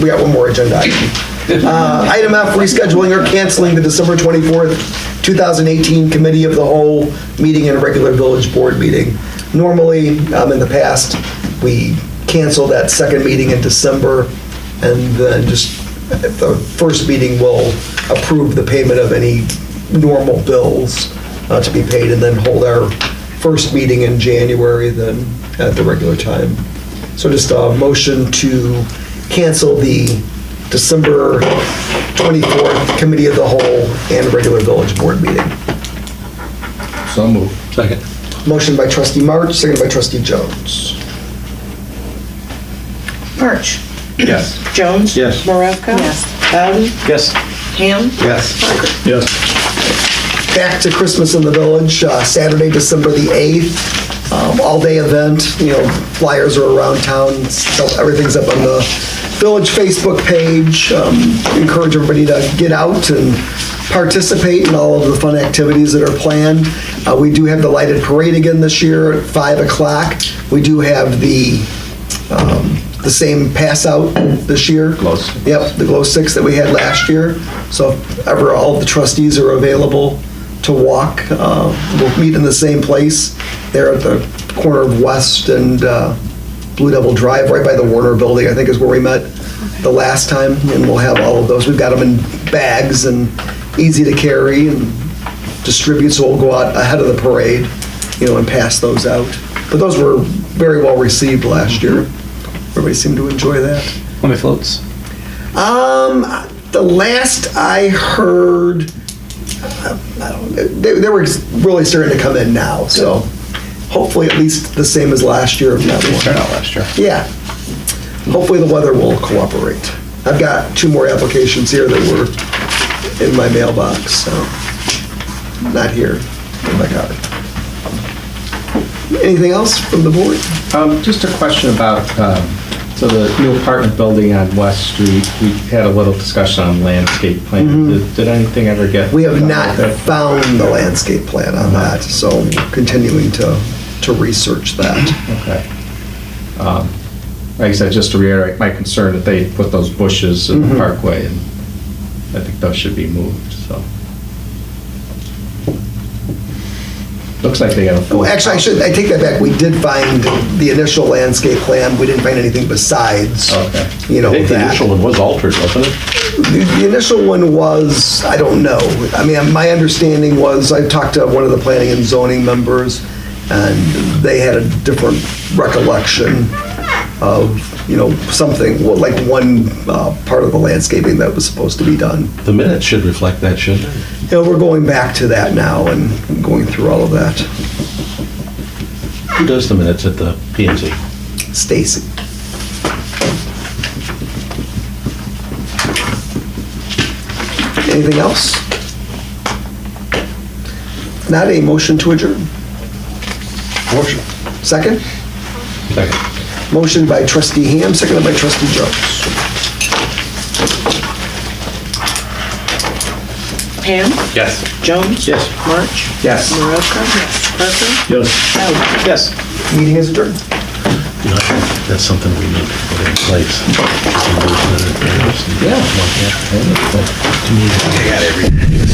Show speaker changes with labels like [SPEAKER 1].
[SPEAKER 1] We got one more agenda item. Uh, Item F, rescheduling or canceling the December 24th, 2018 Committee of the Whole meeting and regular village board meeting. Normally, um, in the past, we cancel that second meeting in December, and then just, at the first meeting will approve the payment of any normal bills uh, to be paid, and then hold our first meeting in January then at the regular time. So just a motion to cancel the December 24th Committee of the Whole and regular village board meeting.
[SPEAKER 2] So moved. Second.
[SPEAKER 1] Motion by trustee March, second by trustee Jones.
[SPEAKER 3] March.
[SPEAKER 2] Yes.
[SPEAKER 3] Jones.
[SPEAKER 2] Yes.
[SPEAKER 3] Marevka.
[SPEAKER 4] Yes.
[SPEAKER 3] Bowden.
[SPEAKER 2] Yes.
[SPEAKER 3] Ham.
[SPEAKER 2] Yes. Yes.
[SPEAKER 1] Back to Christmas in the Village, uh, Saturday, December the 8th, um, all-day event, you know, flyers are around town, so everything's up on the village Facebook page. Um, Encourage everybody to get out and participate in all of the fun activities that are planned. Uh, We do have the lighted parade again this year at 5 o'clock. We do have the um, the same pass out this year.
[SPEAKER 2] Glow sticks.
[SPEAKER 1] Yep, the glow sticks that we had last year. So if ever all the trustees are available to walk, uh, we'll meet in the same place there at the corner of West and uh, Blue Devil Drive, right by the Warner Building, I think is where we met the last time. And we'll have all of those. We've got them in bags and easy to carry and distribute, so we'll go out ahead of the parade, you know, and pass those out. But those were very well received last year. Everybody seemed to enjoy that.
[SPEAKER 2] How many floats?
[SPEAKER 1] Um, the last I heard, uh, I don't know, they, they were really starting to come in now, so hopefully at least the same as last year, if not more.
[SPEAKER 2] out last year.
[SPEAKER 1] Yeah. Hopefully the weather will cooperate. I've got two more applications here that were in my mailbox, so, not here, in my car. Anything else from the board?
[SPEAKER 5] Um, Just a question about, um, so the new apartment building on West Street, we had a little discussion on landscape plan. Did did anything ever get?
[SPEAKER 1] Mm-hmm. We have not found the landscape plan on that, so continuing to, to research that.
[SPEAKER 5] Okay. Um, Like I said, just to reiterate my concern that they put those bushes in
[SPEAKER 1] Mm-hmm.
[SPEAKER 5] the parkway, and I think those should be moved, so. Looks like they got a
[SPEAKER 1] Oh,
[SPEAKER 5] full.
[SPEAKER 1] Actually, I should, I take that back, we did find the initial landscape plan, we didn't find anything besides,
[SPEAKER 5] Okay.
[SPEAKER 1] you know,
[SPEAKER 2] I think the
[SPEAKER 1] that.
[SPEAKER 2] initial one was altered, wasn't it?
[SPEAKER 1] The the initial one was, I don't know. I mean, my understanding was, I talked to one of the planning and zoning members, and they had a different recollection of, you know, something, well, like one uh, part of the landscaping that was supposed to be done.
[SPEAKER 2] The minutes should reflect that, shouldn't it?
[SPEAKER 1] You know, we're going back to that now and going through all of that.
[SPEAKER 2] Who does the minutes at the P and Z?
[SPEAKER 1] Stacy. Anything else? Not a motion to adjourn?
[SPEAKER 2] Motion.
[SPEAKER 1] Second?
[SPEAKER 2] Second.
[SPEAKER 1] Motion by trustee Ham, seconded by trustee Jones.
[SPEAKER 3] Ham.
[SPEAKER 2] Yes.
[SPEAKER 3] Jones.
[SPEAKER 2] Yes.
[SPEAKER 3] March.
[SPEAKER 5] Yes.
[SPEAKER 3] Marevka. Parker.
[SPEAKER 2] Yes.
[SPEAKER 3] Bowden.
[SPEAKER 5] Yes.
[SPEAKER 1] Meeting is adjourned.
[SPEAKER 2] That's something we need to put in place. Yeah.